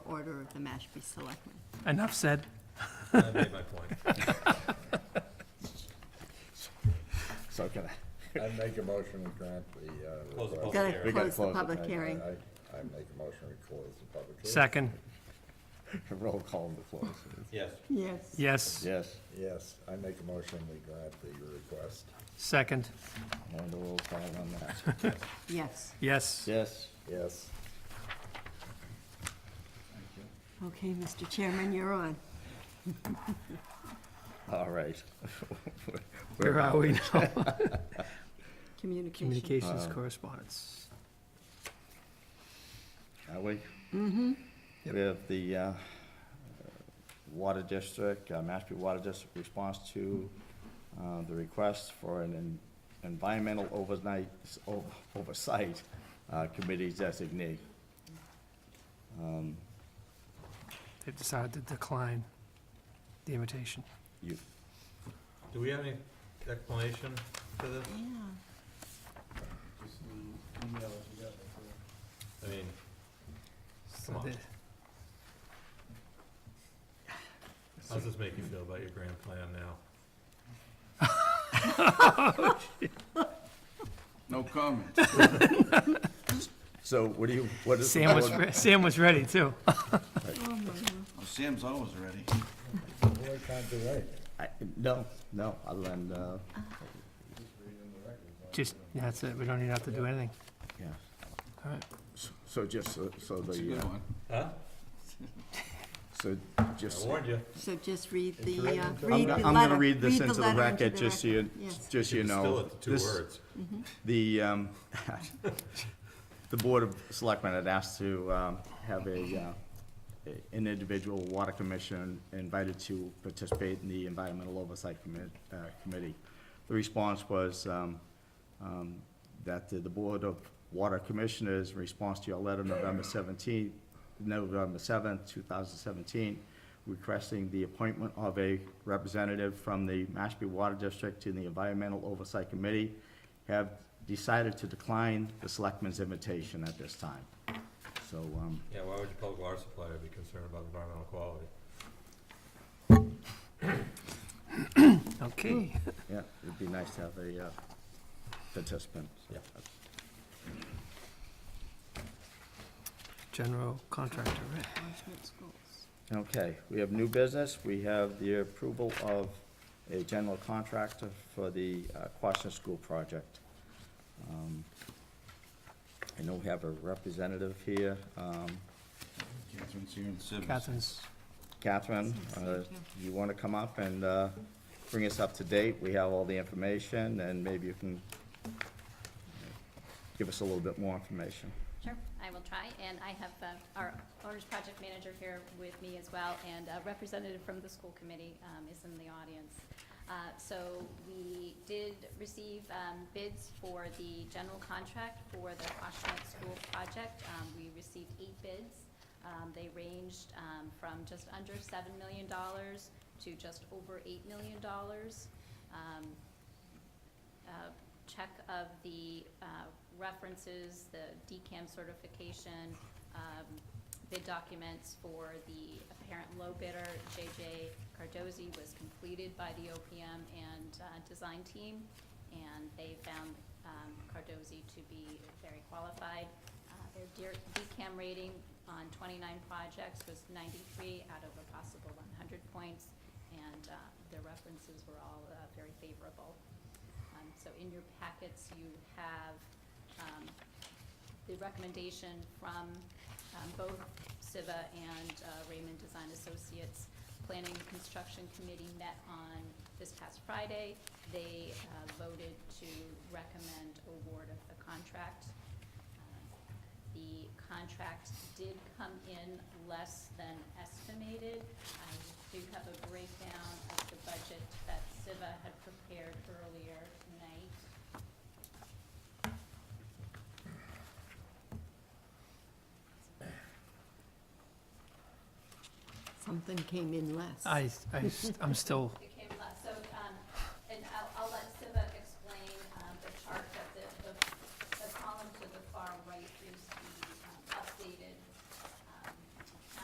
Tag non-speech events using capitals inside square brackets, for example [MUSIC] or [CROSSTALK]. order of the Mashpee Selectmen. Enough said. I made my point. So can I, [LAUGHS] I make a motion to grant the, uh. Close the request. public Gotta hearing. gotta close the public I- hearing. I, I I make a motion to close the public hearing. Second, Roll call to close. Yes, Yes. yes. Yes. Yes, I make a motion we grant the request. Second, And a roll call on that. Yes. yes. Yes. Yes. Okay, Mr. Chairman, you're on. All right. [LAUGHS] Where are we now? Communication. [LAUGHS] Communications correspondence. Are we? Mm-hmm. We have the uh, Water District, uh, Mashpee Water District response to uh, the request for an en- environmental overnight, o- oversight uh, committee designee. They've decided to decline the invitation. You, do we have any explanation to this? Yeah. Just the email that you got, that's all. I mean, So come on, the- how's this make you feel about your grand plan now? No comment. so what do you, what is? the Sam was, board- re- Sam was ready too. Oh, my God. Oh, Sam's always ready. Boy can't do right. I- No, no, other than, uh, Just, that's it, we don't even have to do anything. yeah. All right. So just, so- so It's a the, good uh, one. Huh? so I just, warned you. So just read the, uh, read written the into- letter. I'm gonna- I'm gonna read this the into the letter record, just so you, Yes. just so you know. Still, it's two This- words. The, um, [LAUGHS] the Board of Selectmen had asked to, um, have a, uh, a- an individual water commission invited to participate in the Environmental Oversight Commit, uh, Committee. The response was, um, um, that the, the Board of Water Commissioners, in response to your letter November seventeenth, November seventh, two thousand seventeen, requesting the appointment of a representative from the Mashpee Water District to the Environmental Oversight Committee, have decided to decline the selectman's invitation at this time. So, um, Yeah, why would your public water supplier be concerned about environmental quality? Okay, yeah, it'd be nice to have a, uh, participant. Yeah. general contractor, right? Enforcement schools. Okay, we have new business, we have the approval of a general contractor for the uh, Quashnet School project. Um, I know we have a representative here, um, Catherine's here in Sivers. Catherine's, Catherine, uh, you wanna come up and, uh, bring us up to date? We have all the information, and maybe you can give us a little bit more information. Sure, I will try, and I have uh, our owner's project manager here with me as well, and a representative from the school committee um, is in the audience. Uh, So we did receive um, bids for the general contract for the Quashnet School project. Um, We received eight bids. Um, They ranged um, from just under $7 million to just over $8 million. Um, uh, check of the uh, references, the DCAM certification, um, bid documents for the apparent low bidder, JJ Cardozi, was completed by the OPM and uh, design team, and they found um, Cardozi to be very qualified. Uh, Their dear- DCAM rating on 29 projects was 93 out of a possible 100 points, and uh, their references were all uh, very favorable. Um, So in your packets, you have um, the recommendation from um, both Siva and uh, Raymond Design Associates. Planning and Construction Committee met on this past Friday. They uh, voted to recommend award of the contract. Uh, the contract did come in less than estimated. I do have a breakdown of the budget that Siva had prepared earlier tonight. Something came in less. I, I, I'm still um, um,